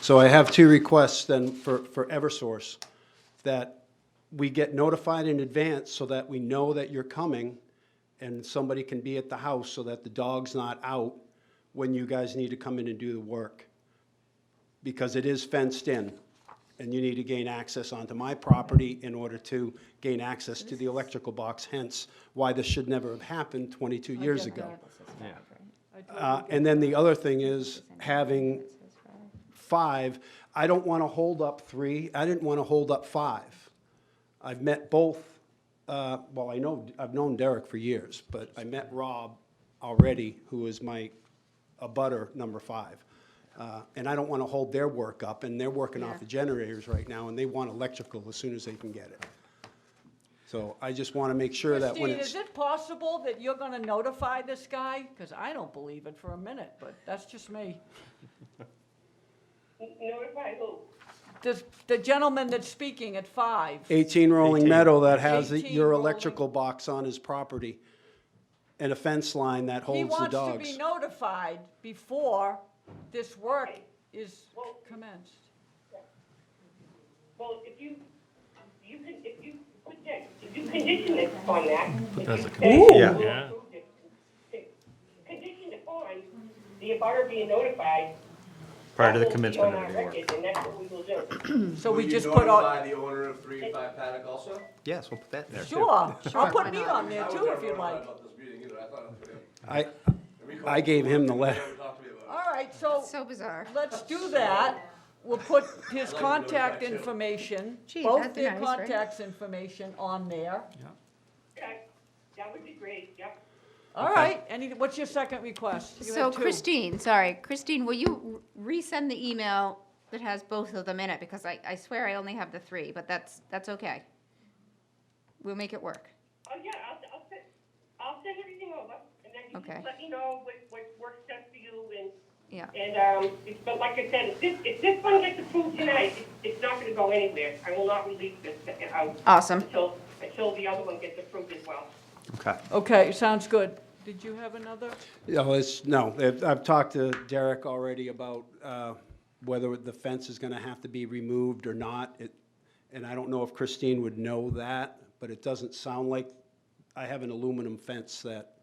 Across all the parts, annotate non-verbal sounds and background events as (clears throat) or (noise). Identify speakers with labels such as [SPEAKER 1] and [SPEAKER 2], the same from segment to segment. [SPEAKER 1] So I have two requests then for, for Eversource, that we get notified in advance so that we know that you're coming and somebody can be at the house so that the dog's not out when you guys need to come in and do the work. Because it is fenced in and you need to gain access onto my property in order to gain access to the electrical box, hence why this should never have happened 22 years ago. Uh, And then the other thing is having five. I don't want to hold up three. I didn't want to hold up five. I've met both, uh, well, I know, I've known Derek for years, but I met Rob already, who is my abutter number five. Uh, And I don't want to hold their work up, and they're working off the generators right now, and they want electrical as soon as they can get it. So I just want to make sure that when
[SPEAKER 2] Christine,
[SPEAKER 1] it's.
[SPEAKER 2] is it possible that you're gonna notify this guy? Because I don't believe it for a minute, but that's just me.
[SPEAKER 3] Notify who?
[SPEAKER 2] The, the gentleman that's speaking at five.
[SPEAKER 1] 18 Rolling Meadow that has
[SPEAKER 2] 18
[SPEAKER 1] your
[SPEAKER 2] rolling.
[SPEAKER 1] electrical box on his property and a fence line that
[SPEAKER 2] He
[SPEAKER 1] holds the
[SPEAKER 2] wants to
[SPEAKER 1] dogs.
[SPEAKER 2] be notified before this work is commenced.
[SPEAKER 3] Well, if you, you can, if you put that, if you condition it on that. Put that as a
[SPEAKER 4] Yeah.
[SPEAKER 3] condition.
[SPEAKER 4] Yeah.
[SPEAKER 3] Condition it on the abutter being notified.
[SPEAKER 4] Prior to the
[SPEAKER 3] That will be on
[SPEAKER 4] commencement of
[SPEAKER 3] our
[SPEAKER 4] the work.
[SPEAKER 3] record, And that's what we will do.
[SPEAKER 1] Hmm.
[SPEAKER 2] So we
[SPEAKER 5] Will
[SPEAKER 2] just
[SPEAKER 5] you
[SPEAKER 2] put all,
[SPEAKER 5] notify the owner of three and five Paddock also?
[SPEAKER 4] Yes, we'll put that in there too.
[SPEAKER 2] sure, I'll put me
[SPEAKER 6] not?
[SPEAKER 2] on there
[SPEAKER 5] I was
[SPEAKER 2] too
[SPEAKER 5] never
[SPEAKER 2] if you
[SPEAKER 5] notified
[SPEAKER 2] like.
[SPEAKER 5] About this meeting either, I thought I was gonna-
[SPEAKER 1] I,
[SPEAKER 5] and we
[SPEAKER 1] I
[SPEAKER 5] called-
[SPEAKER 1] gave him the
[SPEAKER 5] they
[SPEAKER 1] letter.
[SPEAKER 5] never talked to me about
[SPEAKER 2] All right, so
[SPEAKER 6] So bizarre.
[SPEAKER 2] let's do that. We'll put his contact information,
[SPEAKER 6] Gee,
[SPEAKER 2] both
[SPEAKER 6] that'd be
[SPEAKER 2] their
[SPEAKER 6] nice, right?
[SPEAKER 2] contacts information on there.
[SPEAKER 3] Okay, That would be great, yep.
[SPEAKER 2] All right, any, what's your second request? You
[SPEAKER 6] So
[SPEAKER 2] have two.
[SPEAKER 6] Christine, sorry, Christine, will you r- resend the email that has both of them in it? Because I, I swear I only have the three, but that's, that's okay. We'll make it work.
[SPEAKER 3] Oh, yeah, I'll, I'll send, I'll send everything over, and then you
[SPEAKER 6] Okay.
[SPEAKER 3] just let me know what, what works best for you, and,
[SPEAKER 6] Yeah,
[SPEAKER 3] and, um, it's- but like I said, if this, if this one gets approved tonight, it's, it's not gonna go anywhere. I will not release this uh, out
[SPEAKER 6] awesome.
[SPEAKER 3] until, until the other one gets approved as well.
[SPEAKER 4] Okay.
[SPEAKER 2] Okay, sounds good. Did you have another?
[SPEAKER 1] You know, it's, no, I've, I've talked to Derek already about, uh, whether the fence is gonna have to be removed or not. It, and I don't know if Christine would know that, but it doesn't sound like, I have an aluminum fence that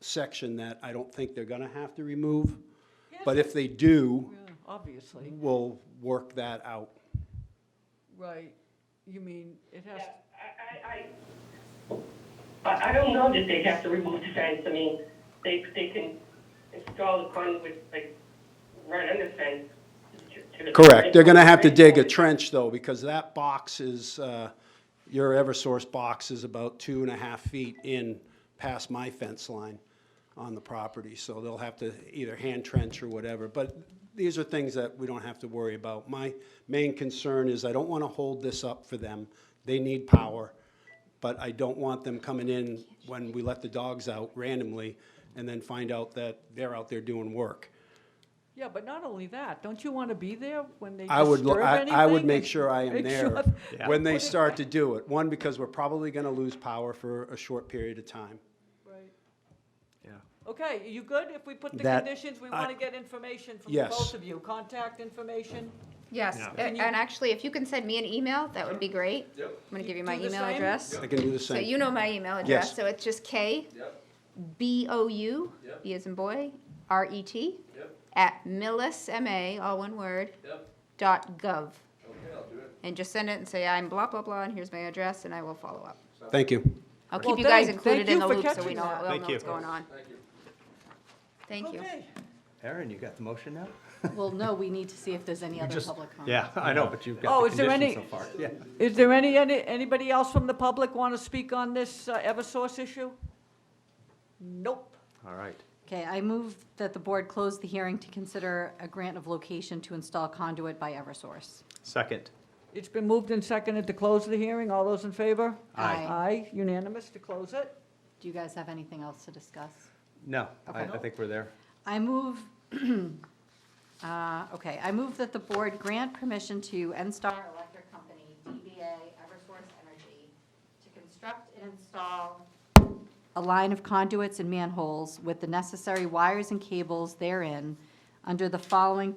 [SPEAKER 1] section that I don't think they're gonna have to remove. But if they do,
[SPEAKER 2] Yeah, Obviously,
[SPEAKER 1] we'll work that out.
[SPEAKER 2] right. You mean, it has,
[SPEAKER 3] Yeah, I, I, I, I- I don't know that they'd have to remove the fence, I mean, they, they can install the conduit, like, right under the fence. to- to the-
[SPEAKER 1] Correct. They're gonna have to dig a trench though, because that box is, uh, your Eversource box is about two and a half feet in past my fence line on the property, so they'll have to either hand trench or whatever, but these are things that we don't have to worry about. My main concern is I don't wanna hold this up for them. They need power, but I don't want them coming in when we let the dogs out randomly and then find out that they're out there doing work.
[SPEAKER 2] yeah, but not only that, don't you want to be there when they
[SPEAKER 1] I would,
[SPEAKER 2] disturb
[SPEAKER 1] I,
[SPEAKER 2] anything?
[SPEAKER 1] I would make sure I am
[SPEAKER 2] Make
[SPEAKER 1] there
[SPEAKER 2] sure-
[SPEAKER 1] when they start to do it. One, because we're probably gonna lose power for a short period of time.
[SPEAKER 2] Right.
[SPEAKER 4] Yeah.
[SPEAKER 2] Okay, you good? If we put the
[SPEAKER 1] That-
[SPEAKER 2] conditions, we
[SPEAKER 1] I-
[SPEAKER 2] want to get information from
[SPEAKER 1] Yes.
[SPEAKER 2] both of you, contact information.
[SPEAKER 6] Yes,
[SPEAKER 4] Yeah.
[SPEAKER 6] a- and actually, if you can send me an email, that would be great.
[SPEAKER 5] Yep.
[SPEAKER 6] I'm gonna give you my
[SPEAKER 2] Do the
[SPEAKER 6] email
[SPEAKER 2] same?
[SPEAKER 6] address.
[SPEAKER 1] I can do the
[SPEAKER 6] So
[SPEAKER 1] same.
[SPEAKER 6] you know my email
[SPEAKER 1] Yes.
[SPEAKER 6] address, so it's just K
[SPEAKER 5] it. Yep,
[SPEAKER 6] B O U,
[SPEAKER 5] Yep.
[SPEAKER 6] B as in boy, R E T,
[SPEAKER 5] yep,
[SPEAKER 6] at millis, M A, all one word,
[SPEAKER 5] yep,
[SPEAKER 6] dot gov.
[SPEAKER 5] okay, I'll do it.
[SPEAKER 6] And just send it and say, I'm blah, blah, blah, and here's my address, and I will follow up.
[SPEAKER 1] Thank you.
[SPEAKER 6] I'll
[SPEAKER 2] Well,
[SPEAKER 6] keep you guys
[SPEAKER 2] thank-
[SPEAKER 6] included
[SPEAKER 2] thank
[SPEAKER 6] in
[SPEAKER 2] you
[SPEAKER 6] the
[SPEAKER 2] for
[SPEAKER 6] loop so we
[SPEAKER 2] catching
[SPEAKER 6] know,
[SPEAKER 2] that.
[SPEAKER 6] we'll
[SPEAKER 4] Thank
[SPEAKER 6] know
[SPEAKER 4] you.
[SPEAKER 6] what's going on.
[SPEAKER 5] Thank you.
[SPEAKER 6] Thank you.
[SPEAKER 2] Okay.
[SPEAKER 4] Aaron, you got the motion now?
[SPEAKER 7] Well, no, we need to see if there's any other public comment.
[SPEAKER 4] Yeah, I know, but you've
[SPEAKER 2] Oh,
[SPEAKER 4] got
[SPEAKER 2] is
[SPEAKER 4] the
[SPEAKER 2] there
[SPEAKER 4] condition so
[SPEAKER 2] any-
[SPEAKER 4] far. Yeah.
[SPEAKER 2] Is there any, any, anybody else from the public want to speak on this uh, Eversource issue? Nope.
[SPEAKER 4] All right.
[SPEAKER 7] Okay, I move that the board close the hearing to consider a grant of location to install conduit by Eversource.
[SPEAKER 4] Second.
[SPEAKER 2] It's been moved and seconded to close the hearing. All those in favor?
[SPEAKER 7] Aye.
[SPEAKER 2] Aye, unanimous to close it.
[SPEAKER 7] Do you guys have anything else to discuss?
[SPEAKER 4] No, I, I
[SPEAKER 7] Okay.
[SPEAKER 4] think we're there.
[SPEAKER 7] I move, (clears throat) uh, okay, I move that the board grant permission to NSTAR Electric Company, DBA Eversource Energy, to construct and install a line of conduits and manholes with the necessary wires and cables therein under the following